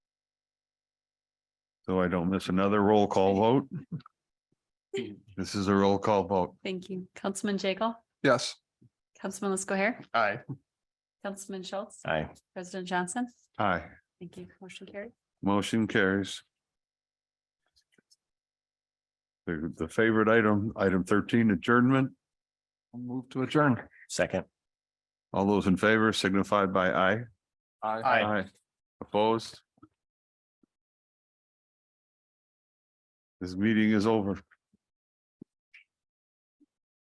so I don't miss another roll call vote. This is a roll call vote. Thank you. Councilman Jekyll, Yes. Councilman Lesko Hair, Aye. Councilman Schultz, Aye. President Johnson. Aye. Thank you. Motion carried. Motion carries. The, the favorite item, item thirteen, adjournment. Move to adjourn. Second. All those in favor signify by aye. Aye. Opposed? This meeting is over.